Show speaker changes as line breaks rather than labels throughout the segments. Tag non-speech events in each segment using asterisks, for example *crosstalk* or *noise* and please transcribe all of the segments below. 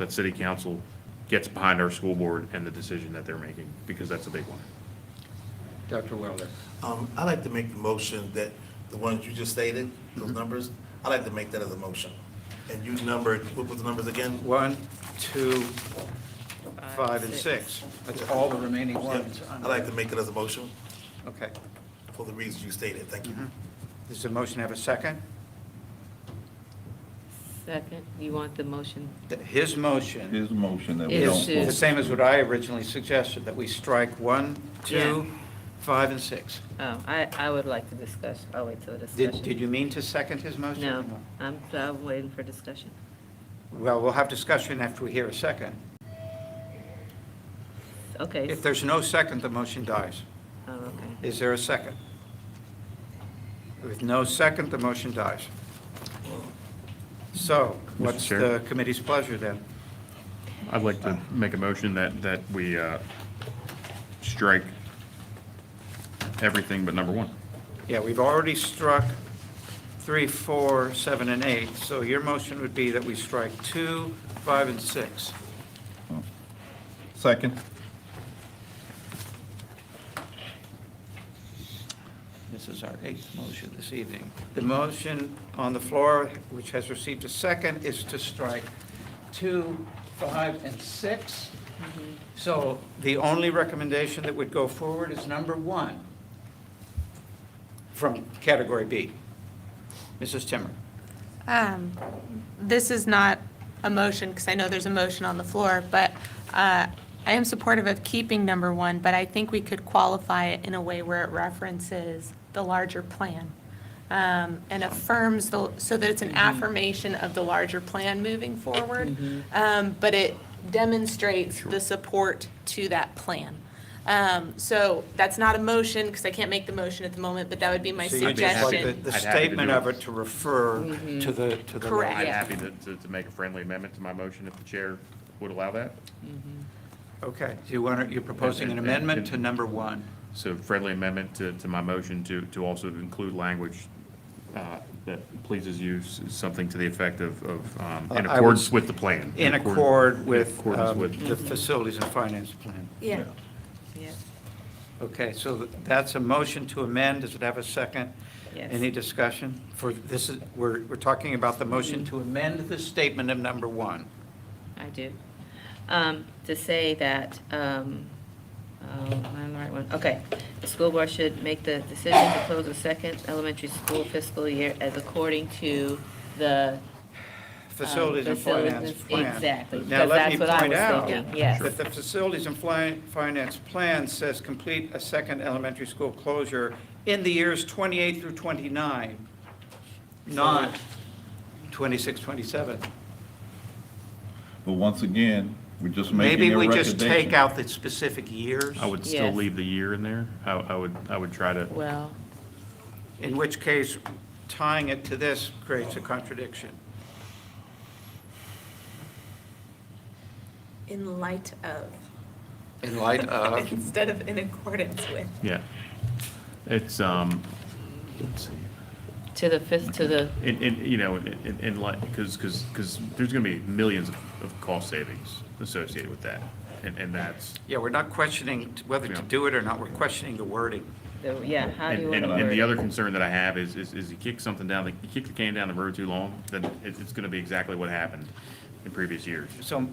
that city council gets behind our school board and the decision that they're making, because that's a big one.
Dr. Wilder.
Um, I'd like to make the motion that, the ones you just stated, those numbers, I'd like to make that as a motion. And you numbered, what was the numbers again?
One, two, five, and six. That's all the remaining
Yeah,
ones.
I'd like to make it as a motion
Okay.
for the reasons you stated, thank you.
Does the motion have a second?
Second, you want the motion?
Th- His motion
His motion that we don't
is the
vote.
same as what I originally suggested, that we strike one, two, five, and six.
Oh, I, I would like to discuss, I'll wait till the discussion.
Did, did you mean to second his motion?
No, I'm, I'm waiting for discussion.
Well, we'll have discussion after we hear a second.
Okay,
If there's no second, the motion dies.
oh, okay.
Is there a second? With no second, the motion dies. So what's
Chair?
the committee's pleasure then?
I'd like to make a motion that, that we uh, strike everything but number one.
Yeah, we've already struck three, four, seven, and eight, so your motion would be that we strike two, five, and six.
Second?
This is our eighth motion this evening. The motion on the floor, which has received a second, is to strike two, five, and six. So the only recommendation that would go forward is number one from category B. Mrs. Timmer?
Um, This is not a motion, because I know there's a motion on the floor, but uh, I am supportive of keeping number one, but I think we could qualify it in a way where it references the larger plan um, and affirms, the so that
Mm-hmm.
it's an affirmation of the larger plan moving forward,
Mm-hmm.
Um, but it demonstrates the support to that plan. Um, So that's not a motion, because I can't make the motion at the moment, but that would be my
So you'd just
suggestion.
like
Mm-hmm.
The the
I'd happy to
statement
do it.
of it to refer to the, to the.
Correct.
I'm
Yeah.
happy to, to- to make a friendly amendment to my motion if the chair would allow that.
Okay, so you want, to- you're proposing an amendment to number one.
So friendly amendment to, to my motion to, to also include language uh, that pleases you, s- something to the effect of, of, um, in
Uh, I would-
accordance with the plan.
In
accord-
accord
in
with
accordance
um,
with-
the facilities and finance plan.
Yeah. Yeah,
Okay, so th- that's a motion to amend. Does it have a second?
Yes.
Any discussion? For, this is, we're, we're talking about the motion
Mm-hmm.
to amend the statement of number one.
I do. Um, to say that, um, oh, I'm the right one, okay. The school board should make the decision to close the second elementary school fiscal year as according to the
Facilities and
facilities-
finance plan.
exactly,
Now,
because
let me
that's what I
point
was
out
thinking, yes.
That the facilities and fly- finance plan says complete a second elementary school closure in the years 28 through 29, not 26, 27.
But once again, we're just making
Maybe
a
we just take
recommendation.
out the specific years.
I would still
Yes.
leave the year in there. I, I would, I would try to,
Well,
In which case, tying it to this creates a contradiction.
In light of.
In
*laughs*
light of,
Instead of in accordance with.
yeah. It's, um, let's see.
to the fifth, to the,
And, and, you know, and, and like, because, because, because there's going to be millions of, of cost savings associated with that. And, and that's,
yeah, we're not questioning whether to do it or not, we're questioning the wording.
the- yeah, how do you
and,
want
and
to
and
word
the
it?
other concern that I have is, is, is you kick something down, the- you kick the can down the road too long, then it's, it's going to be exactly what happened in previous years.
So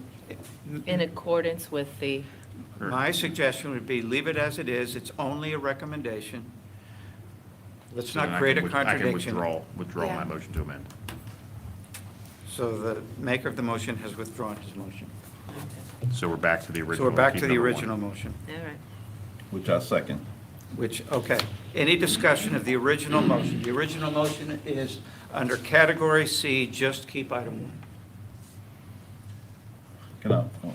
In accordance with the,
my suggestion would be leave it as it is, it's only a recommendation. Let's
So then
not
I
create a
can with- I can
contradiction.
withdraw, withdraw my
Yeah.
motion to amend.
So the maker of the motion has withdrawn his motion.
So we're back to the original.
So we're back to
keep
the
number one.
original motion,
all right.
Which I second.
which, okay. Any discussion of the original motion? The original motion is under category C, just keep item one.
Can I, oh.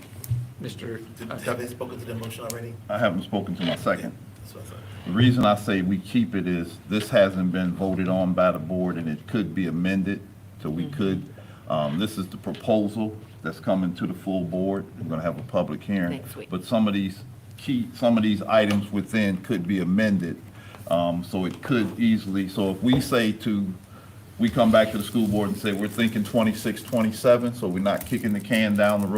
Mr.
Did-
uh,
Have they spoken to the motion already?
I haven't spoken to my second.
That's what I thought.
The reason I say we keep it is this hasn't been voted on by the board and it could be amended. So we
Mm-hmm.
could, um, this is the proposal that's coming to the full board. We're gonna have a public hearing.
Next week.
But some of these key, some of these items within could be amended. Um, so it could easily, so if we say to, we come back to the school board and say, we're thinking 26, 27, so we're not kicking the can down the road.